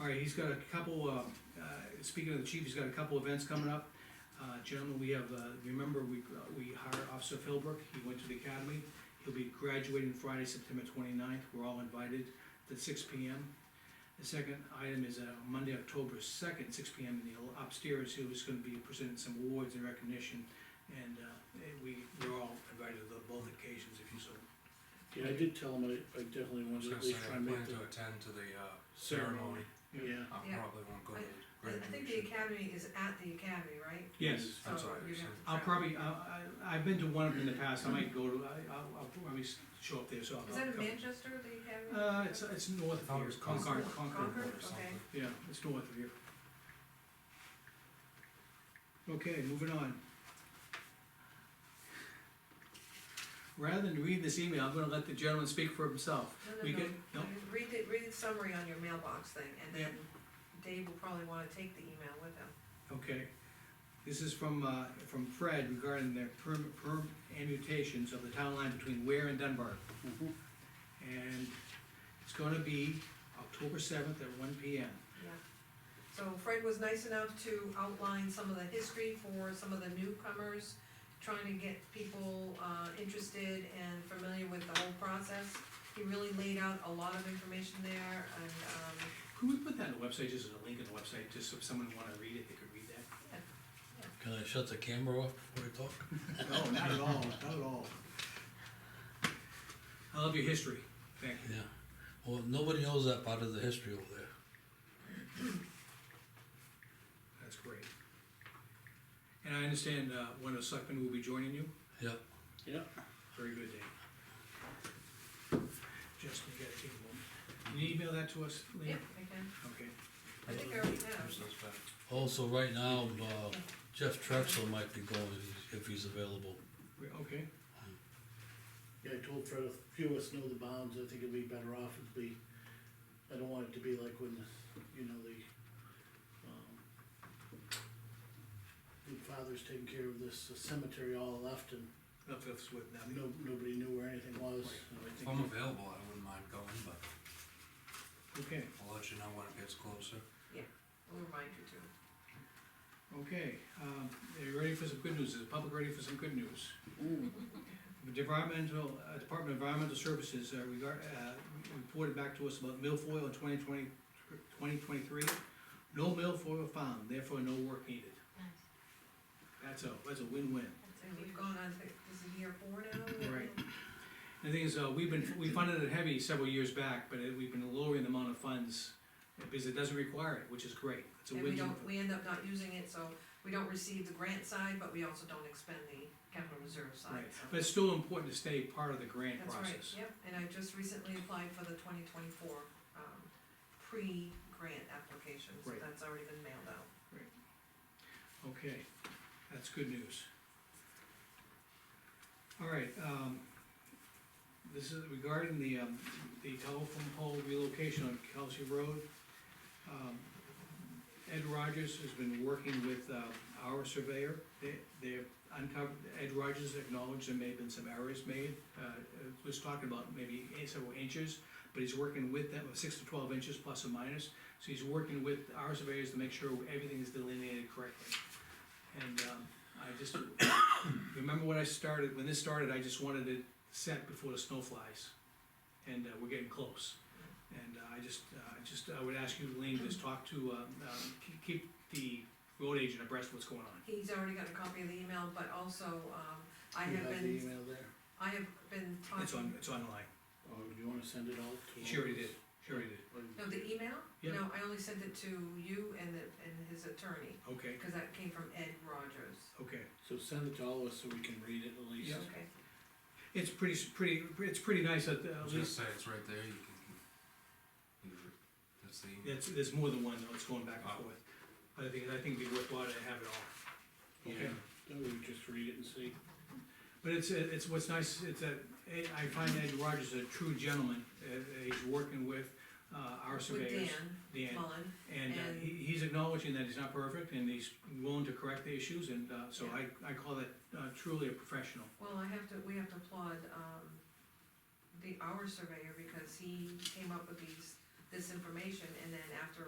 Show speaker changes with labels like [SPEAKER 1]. [SPEAKER 1] All right, he's got a couple, uh, uh, speaking of the chief, he's got a couple events coming up. Uh, gentlemen, we have, uh, remember, we, we hired Officer Philbrook, he went to the academy. He'll be graduating Friday, September 29th. we're all invited to six P M. The second item is, uh, Monday, October second, six P M, in the upstairs, he was gonna be presenting some awards and recognition. And, uh, eh, we, we're all invited to both occasions if you so.
[SPEAKER 2] Yeah, I did tell him I, I definitely
[SPEAKER 3] I
[SPEAKER 2] wanted
[SPEAKER 3] was
[SPEAKER 2] to
[SPEAKER 3] gonna
[SPEAKER 2] at
[SPEAKER 3] say,
[SPEAKER 2] least try
[SPEAKER 3] I
[SPEAKER 2] and
[SPEAKER 3] plan
[SPEAKER 2] make
[SPEAKER 3] to
[SPEAKER 2] the
[SPEAKER 3] attend to the, uh,
[SPEAKER 2] ceremony.
[SPEAKER 3] ceremony.
[SPEAKER 2] Yeah,
[SPEAKER 3] I
[SPEAKER 4] Yeah.
[SPEAKER 3] probably won't go to the
[SPEAKER 4] I I think the
[SPEAKER 3] graduation.
[SPEAKER 4] academy is at the academy, right?
[SPEAKER 1] Yes.
[SPEAKER 3] That's
[SPEAKER 4] So
[SPEAKER 3] what I
[SPEAKER 4] you're
[SPEAKER 3] understand.
[SPEAKER 4] gonna have to
[SPEAKER 1] I'll
[SPEAKER 4] travel.
[SPEAKER 1] probably, I, I, I've been to one of them in the past, I might go to, I, I'll, I'll probably s- show up there, so I'll.
[SPEAKER 4] Is that
[SPEAKER 1] I'll
[SPEAKER 4] in
[SPEAKER 1] come.
[SPEAKER 4] Manchester, the academy?
[SPEAKER 1] Uh, it's, it's
[SPEAKER 3] I
[SPEAKER 1] north of
[SPEAKER 3] thought it
[SPEAKER 1] here,
[SPEAKER 3] was
[SPEAKER 1] Concord,
[SPEAKER 3] Concord.
[SPEAKER 1] Concord,
[SPEAKER 4] Concord,
[SPEAKER 3] or something.
[SPEAKER 4] okay.
[SPEAKER 1] yeah, it's north of here. Okay, moving on. Rather than read this email, I'm gonna let the gentleman speak for himself.
[SPEAKER 4] No, no,
[SPEAKER 1] We
[SPEAKER 4] no.
[SPEAKER 1] get- no?
[SPEAKER 4] Read the, read the summary on your mailbox thing, and
[SPEAKER 1] Yeah.
[SPEAKER 4] then Dave will probably wanna take the email with him.
[SPEAKER 1] Okay, this is from, uh, from Fred regarding the perm, perm amputations of the town line between Ware and Dunbar. Mm-hmm.
[SPEAKER 2] Mhm.
[SPEAKER 1] And it's gonna be October seventh at one P M.
[SPEAKER 4] Yeah. So Fred was nice enough to outline some of the history for some of the newcomers, trying to get people, uh, interested and familiar with the whole process. He really laid out a lot of information there, and, um,
[SPEAKER 1] Could we put that on the website, just as a link on the website, just so if someone wanna read it, they could read that?
[SPEAKER 5] Can I shut the camera off before I talk?
[SPEAKER 1] No, not at all, not at all. I love your history, thank you.
[SPEAKER 5] Yeah. Well, nobody knows that part of the history over there.
[SPEAKER 1] That's great. And I understand, uh, one of the selectmen will be joining you?
[SPEAKER 5] Yep.
[SPEAKER 2] Yep.
[SPEAKER 1] Very good, Dave. Justin, you gotta take a moment. Can you email that to us, Lean?
[SPEAKER 4] yeah, I can,
[SPEAKER 1] Okay.
[SPEAKER 4] I think I already
[SPEAKER 3] Who
[SPEAKER 4] have.
[SPEAKER 3] says that?
[SPEAKER 5] Also, right now, uh, Jeff Trexler might be going if he's- if he's available.
[SPEAKER 1] We- Okay,
[SPEAKER 2] yeah, I told Fred, if few of us know the bounds, I think it'd be better off if we, I don't want it to be like when, you know, the, um, when father's taking care of this cemetery all left and
[SPEAKER 1] enough of us with nothing.
[SPEAKER 2] no, nobody knew where anything was, and I
[SPEAKER 3] If
[SPEAKER 2] think.
[SPEAKER 3] I'm available, I wouldn't mind going, but
[SPEAKER 1] Okay,
[SPEAKER 3] I'll let you know when it gets closer.
[SPEAKER 4] I'll remind you too.
[SPEAKER 1] okay, um, are you ready for some good news? Is the public ready for some good news?
[SPEAKER 2] Mm.
[SPEAKER 1] The Departmental, uh, Department of Environmental Services, uh, regard, uh, reported back to us about milfoil in 2020 2023. No milfoil found, therefore no work needed. That's a, that's a win-win.
[SPEAKER 4] And we've gone on, to- this is year four now?
[SPEAKER 1] Right. The thing is, uh, we've been, we funded it heavy several years back, but it- we've been lowering the amount of funds because it doesn't require it, which is great. It's a
[SPEAKER 4] And we
[SPEAKER 1] win-win.
[SPEAKER 4] don't, we end up not using it, so we don't receive the grant side, but we also don't expend the capital reserve
[SPEAKER 1] Right,
[SPEAKER 4] side, so.
[SPEAKER 1] but it's still important to stay part of the grant
[SPEAKER 4] That's right,
[SPEAKER 1] process.
[SPEAKER 4] yep, and I just recently applied for the twenty twenty-four, um, pre-grant application, so
[SPEAKER 1] Right.
[SPEAKER 4] that's already been mailed out.
[SPEAKER 1] Okay, that's good news. All right, um, this is regarding the, um, the telephone pole relocation on Kelsey Road. Um, Ed Rogers has been working with, uh, our surveyor, they, they've uncovered, Ed Rogers acknowledged there may have been some errors made. Uh, it was talking about maybe eight- several inches, but he's working with them, six to twelve inches plus or minus. So he's working with our surveyors to make sure everything is delineated correctly. And, um, I just, remember when I started, when this started, I just wanted it set before the snow flies. And, uh, we're getting close. And uh, I just, uh, I just, I would ask you, Lean, just talk to, um, um, ke- keep the road agent abreast of what's going on.
[SPEAKER 4] He's already got a copy of the email, but also, um, I
[SPEAKER 2] You
[SPEAKER 4] have
[SPEAKER 2] have the
[SPEAKER 4] been,
[SPEAKER 2] email there,
[SPEAKER 4] I have been
[SPEAKER 1] It's on,
[SPEAKER 4] talking,
[SPEAKER 1] it's online,
[SPEAKER 2] or do you wanna send it out to? all
[SPEAKER 1] Sure
[SPEAKER 2] of
[SPEAKER 1] he
[SPEAKER 2] us?
[SPEAKER 1] did. sure you did,
[SPEAKER 2] Or-
[SPEAKER 4] no, the e- email?
[SPEAKER 1] Yeah.
[SPEAKER 4] No, I only sent it to you and the, and his attorney,
[SPEAKER 1] okay,
[SPEAKER 4] because that came from Ed Rogers.
[SPEAKER 1] okay.
[SPEAKER 2] So send it to all of us so we can read it at least.
[SPEAKER 1] Yeah.
[SPEAKER 4] Okay,
[SPEAKER 1] It's pretty, s- pretty, it's pretty nice that, uh,
[SPEAKER 3] I
[SPEAKER 1] at
[SPEAKER 3] was gonna
[SPEAKER 1] least,
[SPEAKER 3] say, it's right there, you can, you can, that's the email.
[SPEAKER 1] that's, there's more than one though, it's going back
[SPEAKER 3] Oh.
[SPEAKER 1] and forth. But I think, I think it'd be worthwhile to have it all. Okay.
[SPEAKER 2] Then we just read it and see.
[SPEAKER 1] But it's, uh, it's, what's nice, it's a, I find Ed Rogers a true gentleman, uh, he's working with, uh, our
[SPEAKER 4] with
[SPEAKER 1] surveyors.
[SPEAKER 4] Dan
[SPEAKER 1] Dan.
[SPEAKER 4] Mullen.
[SPEAKER 1] And uh,
[SPEAKER 4] And-
[SPEAKER 1] he- he's acknowledging that he's not perfect and he's willing to correct the issues and uh, so I, I call that uh, truly a professional.
[SPEAKER 4] Well, I have to, we have to applaud, um, the, our surveyor, because he came up with these, this information, and then after